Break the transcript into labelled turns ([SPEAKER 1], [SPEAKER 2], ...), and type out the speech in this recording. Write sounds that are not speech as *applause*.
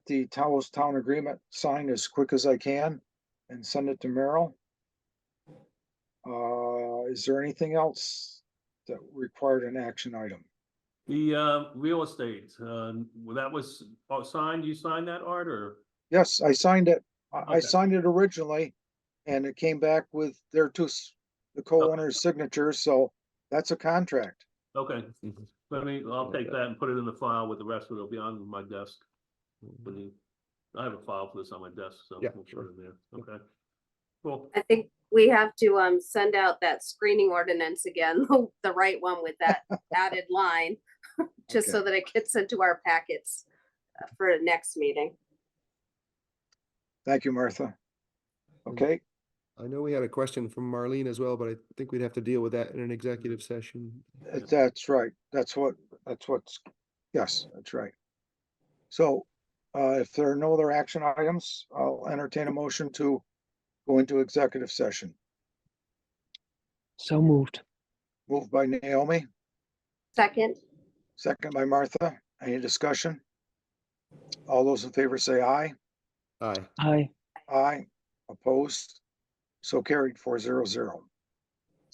[SPEAKER 1] the Taos Town Agreement signed as quick as I can and send it to Merrill. Uh, is there anything else that required an action item?
[SPEAKER 2] The uh, real estate, uh, well, that was oh, signed, you signed that, Art, or?
[SPEAKER 1] Yes, I signed it. I, I
[SPEAKER 2] Okay.
[SPEAKER 1] signed it originally and it came back with their two, s- the co-owner's signatures, so that's a contract.
[SPEAKER 2] Okay,
[SPEAKER 3] Mm-hmm.
[SPEAKER 2] let me, I'll take that and put it in the file with the rest of it. It'll be on my desk. when you- I have a file for this on my desk, so.
[SPEAKER 3] Mm-hmm. Yeah,
[SPEAKER 2] we'll put it in there. Okay. Cool.
[SPEAKER 4] I think we have to um send out that screening ordinance again, *laughs* the right one with that added line. Just so that it gets into our packets uh, for next meeting.
[SPEAKER 1] Thank you, Martha. Okay,
[SPEAKER 3] I know we had a question from Marlene as well, but I think we'd have to deal with that in an executive session.
[SPEAKER 1] That- Uh, That's right. That's what, that's what's, yes, that's right. So uh, if there are no other action items, I'll entertain a motion to go into executive session.
[SPEAKER 5] So moved.
[SPEAKER 1] Moved by Naomi,
[SPEAKER 4] Second,
[SPEAKER 1] second by Martha. Any discussion? All those in favor say aye.
[SPEAKER 3] Aye.
[SPEAKER 5] Aye.
[SPEAKER 1] Aye, opposed. So carried four zero zero.